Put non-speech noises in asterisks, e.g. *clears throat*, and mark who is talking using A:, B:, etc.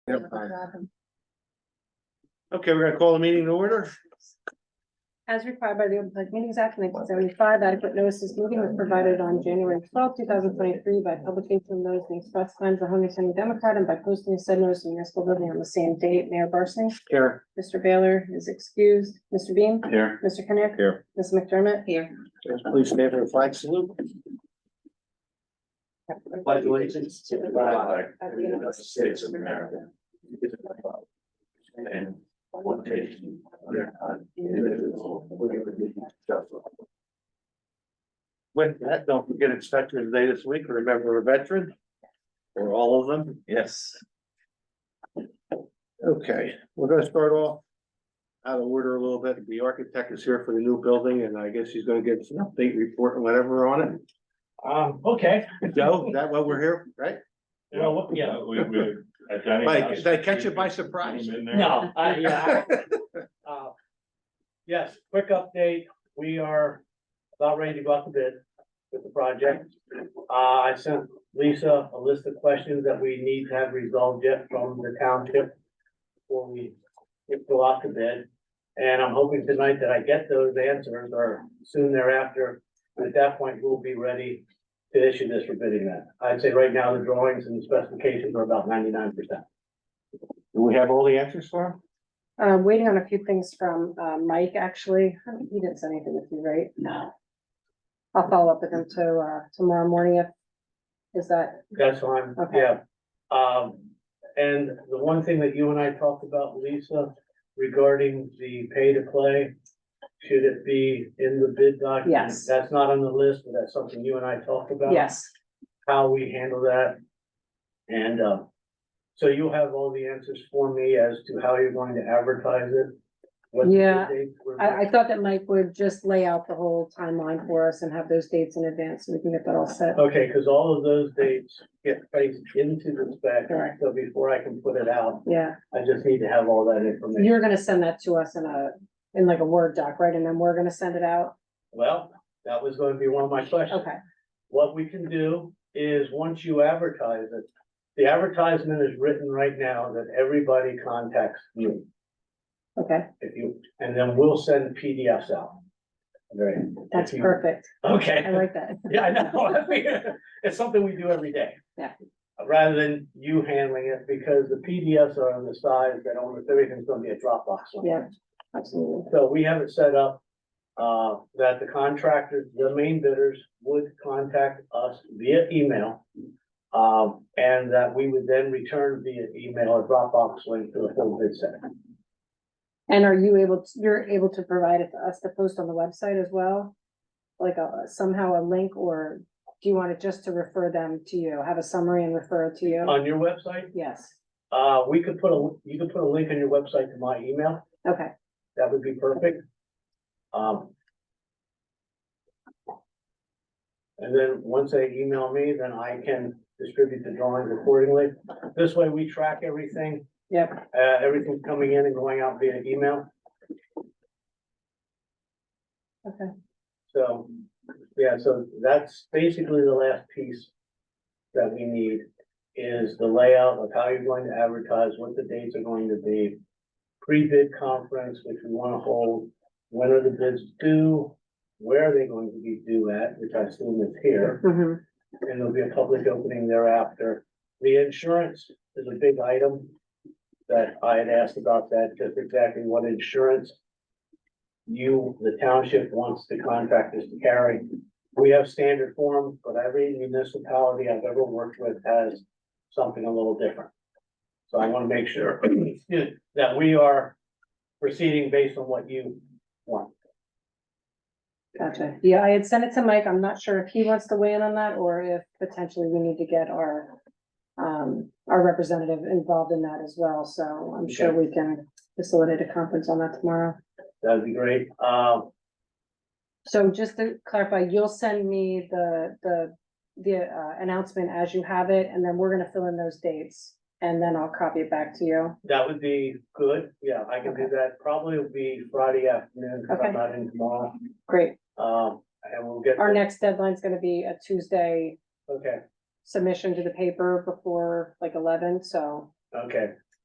A: Yep.
B: Okay, we're gonna call the meeting to order.
C: As required by the Open Public Meetings Act nineteen seventy-five, adequate notice is moving was provided on January twelfth, two thousand twenty-three by publication of notice in the Express Times, the Homer County Democrat, and by posting said notice in the municipal building on the same date. Mayor Barsney?
B: Here.
C: Mr. Baylor is excused. Mr. Bean?
B: Here.
C: Mr. Kenneth?
A: Here.
C: Ms. McDermott? Here.
B: Please stand for the flag salute. Pledge allegiance to the flag of the United States of America. And one nation, under God, indivisible, with liberty and justice. With that, don't forget it's Veterans Day this week. Remember a veteran. Or all of them.
A: Yes.
B: Okay, we're gonna start off. Out of order a little bit. The architect is here for the new building and I guess he's gonna give us an update report and whatever on it.
D: Um, okay,
B: Joe, is that what we're here, right?
D: well, what- yeah,
E: We, uh, we. at Johnny's
B: Mike,
E: house,
B: did I catch you by
E: we-
B: surprise?
E: we went in there.
D: no, I, yeah.
E: *laughs*
D: I- uh, Yes, quick update, we are about ready to go out to bid with the project. Uh, I sent Lisa a list of questions that we need to have resolved yet from the township before we go out to bid. And I'm hoping tonight that I get those answers or soon thereafter. And At that point, we'll be ready to issue this for bidding that. I'd say right now, the drawings and specifications are about ninety-nine percent.
B: Do we have all the answers for him?
C: Uh, waiting on a few things from, uh, Mike, actually. I don't- He didn't send anything with you, right? No. I'll follow up with him to, uh, tomorrow morning if, is that,
D: That's fine,
C: Okay.
D: yeah. Um, and the one thing that you and I talked about, Lisa, regarding the pay to play. Should it be in the bid document?
C: Yes.
D: That's not on the list, but that's something you and I talked about.
C: yes.
D: How we handle that. And, uh, so you'll have all the answers for me as to how you're going to advertise it. what the bid
C: Yeah,
D: dates were.
C: I, I thought that Mike would just lay out the whole timeline for us and have those dates in advance, so we can get that all set.
D: Okay, because all of those dates get placed into the spec,
C: Correct.
D: so before I can put it out,
C: Yeah,
D: I just need to have all that information.
C: you're gonna send that to us in a, in like a Word doc, right? And then we're gonna send it out?
D: Well, that was gonna be one of my questions.
C: Okay,
D: What we can do is, once you advertise it, the advertisement is written right now that everybody contacts you.
C: okay,
D: If you, and then we'll send PDFs out. Right.
C: that's perfect. I
D: Okay,
C: like that.
D: *laughs* yeah, I know. It's something we do every day.
C: Yeah.
D: Rather than you handling it, because the PDFs are on the size that almost everything's gonna be a Dropbox. on.
C: Yeah, absolutely.
D: So we have it set up, uh, that the contractors, the main bidders would contact us via email. Um, and that we would then return via email or Dropbox link to the full bid set.
C: And are you able, to- you're able to provide it to us to post on the website as well? Like a, somehow a link, or do you want it just to refer them to you, have a summary and refer it to you?
D: On your website,
C: Yes,
D: uh, we could put a, you could put a link on your website to my email.
C: okay,
D: That would be perfect. Um. And then once they email me, then I can distribute the drawings accordingly. This way we track everything.
C: yep,
D: Uh, everything's coming in and going out via email,
C: okay.
D: so, yeah, so that's basically the last piece. That we need is the layout of how you're going to advertise, what the dates are going to be. Pre-bid conference, which we wanna hold, when are the bids due, where are they going to be due at, which I assume is here,
C: hmm
D: and there'll be a public opening thereafter. The insurance is a big item that I had asked about that, just exactly what insurance you, the township wants the contractors to carry. We have standard forms, but every municipality I've ever worked with has something a little different. So I want to make sure *clears throat* excuse me, that we are proceeding based on what you want.
C: Gotcha. Yeah, I had sent it to Mike. I'm not sure if he wants to weigh in on that or if potentially we need to get our um, our representative involved in that as well. So I'm sure we can facilitate a conference on that tomorrow.
D: That'd be great. Um,
C: So just to clarify, you'll send me the, the, the uh, announcement as you have it, and then we're gonna fill in those dates. And then I'll copy it back to you.
D: That would be good, yeah, I can do that, probably will be Friday afternoon, because I'm
C: Okay.
D: not in tomorrow,
C: Great.
D: um, and we'll get.
C: Our next deadline's gonna be a Tuesday
D: Okay,
C: submission to the paper before like eleven, so
D: okay,